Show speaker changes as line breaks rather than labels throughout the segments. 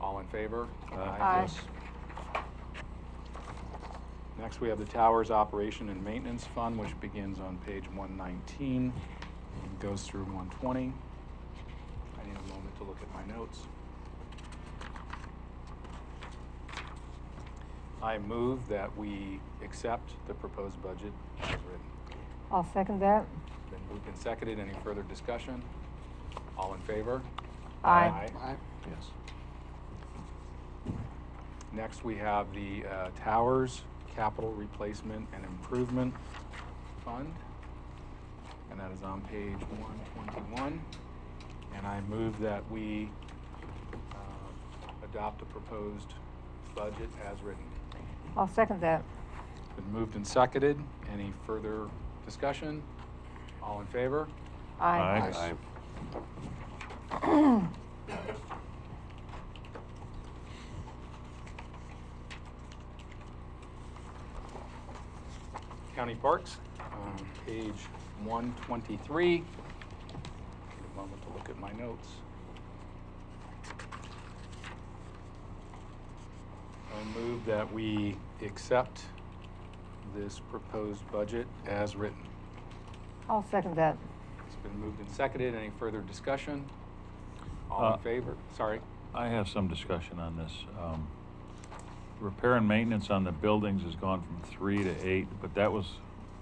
All in favor?
Aye.
Next, we have the Towers Operation and Maintenance Fund, which begins on page 119 and goes through 120. I need a moment to look at my notes. I move that we accept the proposed budget as written.
I'll second that.
Been moved and seconded. Any further discussion? All in favor?
Aye.
Yes. Next, we have the uh, Towers Capital Replacement and Improvement Fund. And that is on page 121. And I move that we uh, adopt the proposed budget as written.
I'll second that.
Been moved and seconded. Any further discussion? All in favor?
Aye.
Aye. County Parks, um, page 123. Give a moment to look at my notes. I move that we accept this proposed budget as written.
I'll second that.
It's been moved and seconded. Any further discussion? All
Uh,
in favor? Sorry.
I have some discussion on this. Um, Repair and maintenance on the buildings has gone from three to eight, but that was,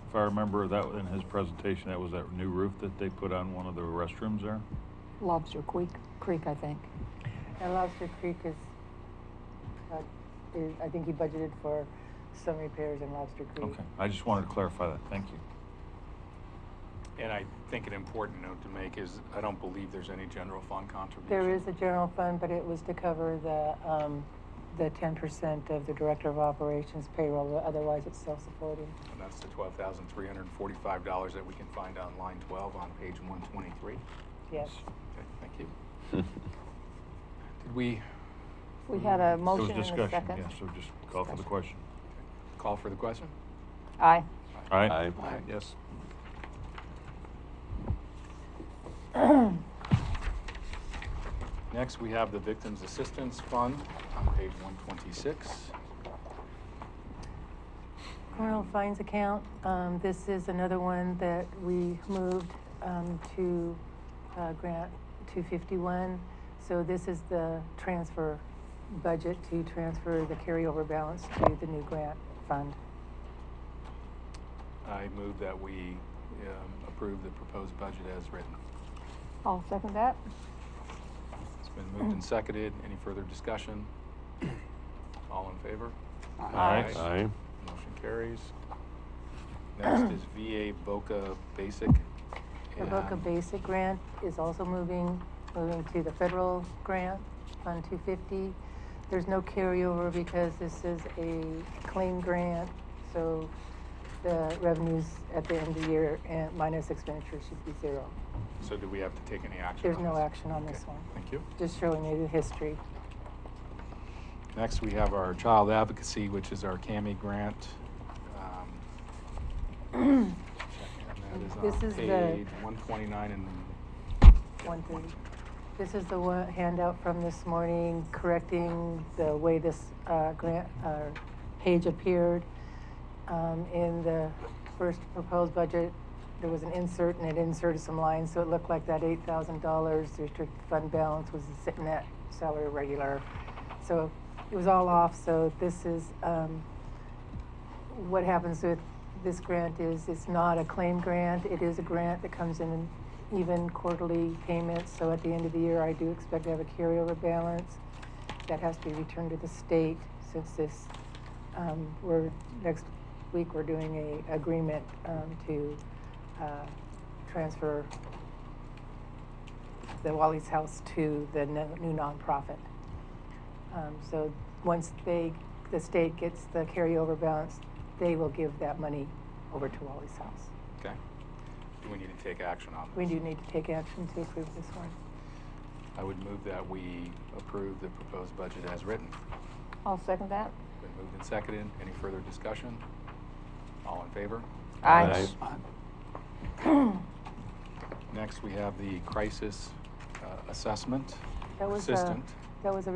if I remember, that was in his presentation, that was that new roof that they put on one of the restrooms there?
Lobster Creek, Creek, I think.
And Lobster Creek is, uh, is, I think he budgeted for some repairs in Lobster
Mm-hmm.
Creek.
Okay, I just wanted to clarify that, thank you.
And I think an important note to make is I don't believe there's any general fund contribution.
There is a general fund, but it was to cover the, um, the ten percent of the Director of Operations payroll, otherwise it's self-supporting.
And that's the twelve thousand three hundred and forty-five dollars that we can find on line twelve on page one twenty-three.
Yes.
Okay, thank you. Did we
We had a
There was
motion and a
discussion,
second.
yeah, so just call for the question.
call for the question?
Aye.
All right?
Aye.
Yes. Next, we have the Victims Assistance Fund on page one twenty-six.
Criminal fines account, um, this is another one that we moved, um, to, uh, grant two fifty-one. So this is the transfer budget to transfer the carryover balance to the new grant fund.
I move that we um, approve the proposed budget as written.
I'll second that.
It's been moved and seconded. Any further discussion? All in favor?
Aye.
Aye.
Motion carries. Next is VA Boca Basic.
The Boca
and
Basic Grant is also moving, moving to the federal grant, Fund 250. There's no carryover because this is a claim grant, so the revenues at the end of the year and minus expenditures should be zero.
So do we have to take any action?
There's
on
no
this?
action on this
Okay,
one.
Thank you.
Just showing you the history.
Next, we have our Child Advocacy, which is our CAMI grant. Um, and That is
This
on
is the-
page 129 and. yeah,
130. This is the one handout from this morning correcting the way this uh, grant, uh, page appeared. Um, In the first proposed budget, there was an insert and it inserted some lines, so it looked like that $8,000 restricted fund balance was sitting at salary regular. So it was all off, so this is, um, what happens with this grant is it's not a claim grant. It is a grant that comes in even quarterly payments. So at the end of the year, I do expect to have a carryover balance that has to be returned to the state since this, um, we're, next week, we're doing a agreement, um, to, uh, transfer the Wally's House to the no- new nonprofit. Um, so once they, the state gets the carryover balance, they will give that money over to Wally's House.
Okay. Do we need to take action on this?
We do need to take action to approve this one.
I would move that we approve the proposed budget as written.
I'll second that.
Been moved and seconded. Any further discussion? All in favor?
Aye.
Next, we have the crisis uh, assessment
That was a- uh,
assistant.
That was a